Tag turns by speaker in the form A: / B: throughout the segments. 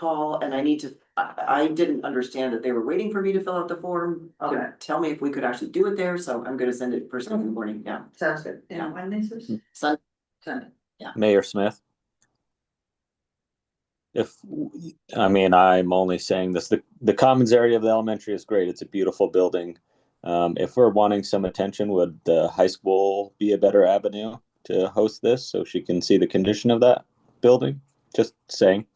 A: call and I need to, I, I didn't understand that they were waiting for me to fill out the form. to
B: Okay.
A: Tell me if we could actually do it there, so I'm gonna send it first
C: Mm-hmm.
A: thing in the morning, yeah.
B: Sounds good.
A: Yeah.
B: when this is?
A: Sun,
B: Sunday.
D: Mayor Smith? If, I mean, I'm only saying this, the, the commons area of the elementary is great. It's a beautiful building. Um, if we're wanting some attention, would the high school be a better avenue to host this so she can see the condition of that building? Just saying.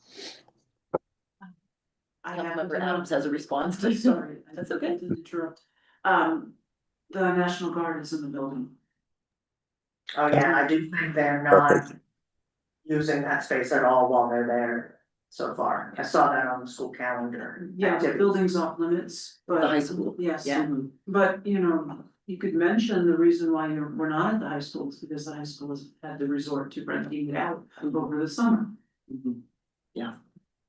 C: I have
A: Councilmember
C: um,
A: Adams has a response to
C: Sorry. I
A: That's okay.
C: didn't interrupt. Um, the National Guard is in the building.
B: Oh, yeah, I do think they're not
D: Perfect.
B: using that space at all while they're there so far. I saw that on the school calendar.
C: Yeah, the
B: activities.
C: building's off limits,
A: The high
C: but
A: school.
C: yes,
A: Yeah.
C: but you know, you could mention the reason why you're, we're not at the high school is because the high school has had to resort to renting it out over the summer.
A: Mhm. Yeah,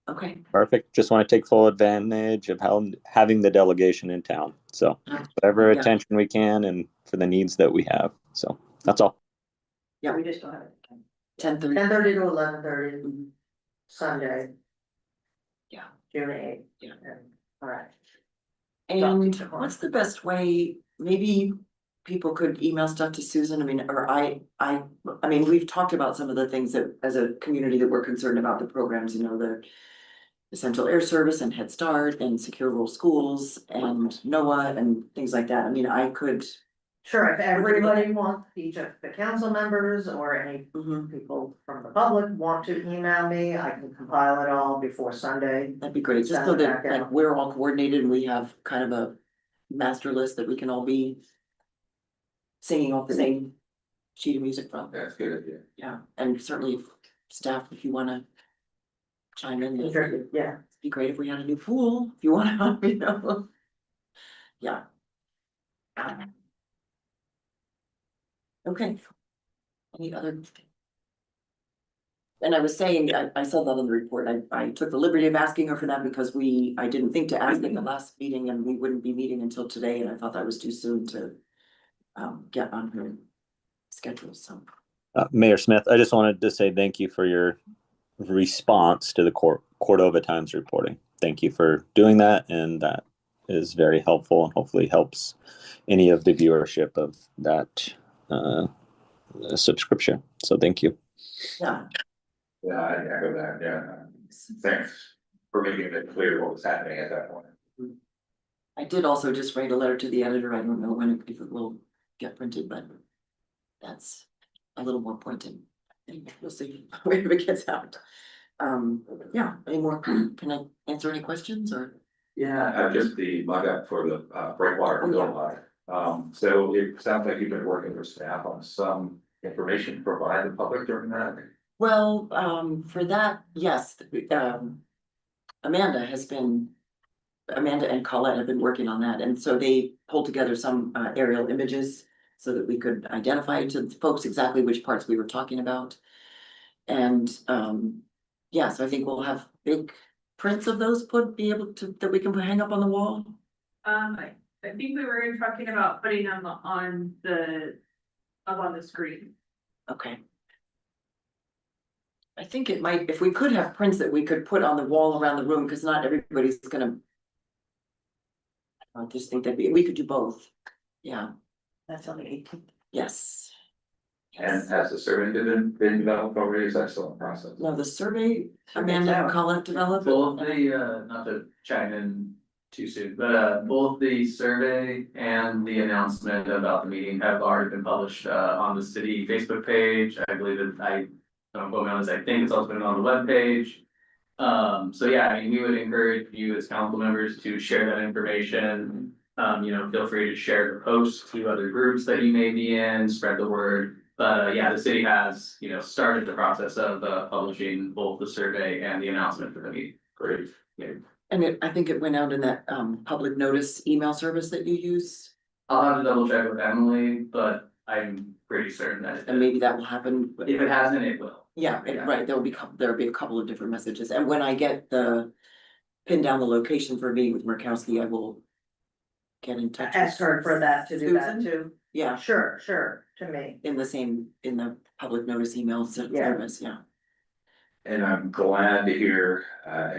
A: okay.
D: Perfect. Just want to take full advantage of how, having the delegation in town. So whatever
A: Yeah.
D: attention we can and for the needs that we have. So that's all.
A: Yeah.
B: We just don't have it.
A: Ten thirty.
B: Ten thirty to eleven thirty, Sunday.
A: Yeah.
B: June eighth.
A: Yeah.
B: Alright.
A: And
B: Dr. Kaur.
A: what's the best way, maybe people could email stuff to Susan, I mean, or I, I, I mean, we've talked about some of the things that, as a community that we're concerned about the programs, you know, the. Essential Air Service and Head Start and Secure Rural Schools and NOAA and things like that, I mean, I could.
B: Sure, if everybody wants, each of the council members or any
A: mhm,
B: people from the public want to email me, I can compile it all before Sunday.
A: that'd be great, just so
B: Sounds
A: that,
B: like, yeah.
A: like, we're all coordinated and we have kind of a master list that we can all be. Singing off the same sheet of music from.
E: That's a good idea.
A: Yeah, and certainly if staff, if you wanna chime in, it'd
B: Sure, Yeah,
A: be great if we had a new pool, if you wanna, you know. Yeah. Um, Okay. Any other? And I was saying, I, I saw that in the report, I, I took the liberty of asking her for that because we, I didn't think to ask at the last meeting and we wouldn't be meeting until today, and I thought that was too soon to. Um, get on her schedule, so.
D: Uh, Mayor Smith, I just wanted to say thank you for your response to the Cor- Cordova Times reporting. Thank you for doing that, and that is very helpful and hopefully helps any of the viewership of that uh, subscription. So thank you.
A: Yeah,
E: Yeah, I echo that, yeah. Thanks for making it clear what was happening at that point.
A: I did also just write a letter to the editor. I don't know when it- if it will get printed, but that's a little more pointed. And we'll see where it gets out. Um, yeah, any more, can I answer any questions or?
E: Yeah. Uh, just the mug up for the uh breakwater,
A: Oh, yeah.
E: water. Um, so it sounds like you've been working with staff on some information to provide the public during that.
A: Well, um, for that, yes, th- um, Amanda has been. Amanda and Colette have been working on that, and so they pulled together some uh, aerial images so that we could identify to folks exactly which parts we were talking about. And, um, yeah, so I think we'll have big prints of those put, be able to, that we can hang up on the wall.
F: Um, I, I think we were talking about putting them on the, up on the screen.
A: Okay. I think it might, if we could have prints that we could put on the wall around the room, because not everybody's gonna. I just think that we, we could do both, yeah,
B: that's on the eighteenth.
A: yes.
E: And
A: Yes,
E: has the survey been been developed already? Is that still in process?
A: no, the survey, Amanda and Colin developed.
G: Both the, uh, not to chime in too soon, but, uh, both the survey and the announcement about the meeting have already been published, uh, on the city Facebook page. I believe that I, don't quote me on this, I think it's also been on the webpage. Um, so yeah, I mean, we would encourage you as council members to share that information. Um, you know, feel free to share the post to other groups that you may be in, spread the word. But uh, yeah, the city has, you know, started the process of uh publishing both the survey and the announcement for the meeting.
E: Great.
A: And it, I think it went out in that um public notice email service that you use,
G: I'll have to double check with Emily, but I'm pretty certain that it
A: and
G: did.
A: maybe that will happen.
G: If it hasn't, it will.
A: Yeah, and right, there'll be, cou- there'll be a couple of different messages, and when I get the, pin down the location for me with Murkowski, I will. Get in touch. with
B: Ask her for that to do that
A: Susan?
B: too.
A: Yeah,
B: Sure, sure, to me.
A: in the same, in the public notice email ser-
B: Yeah.
A: service, yeah.
E: And I'm glad to hear uh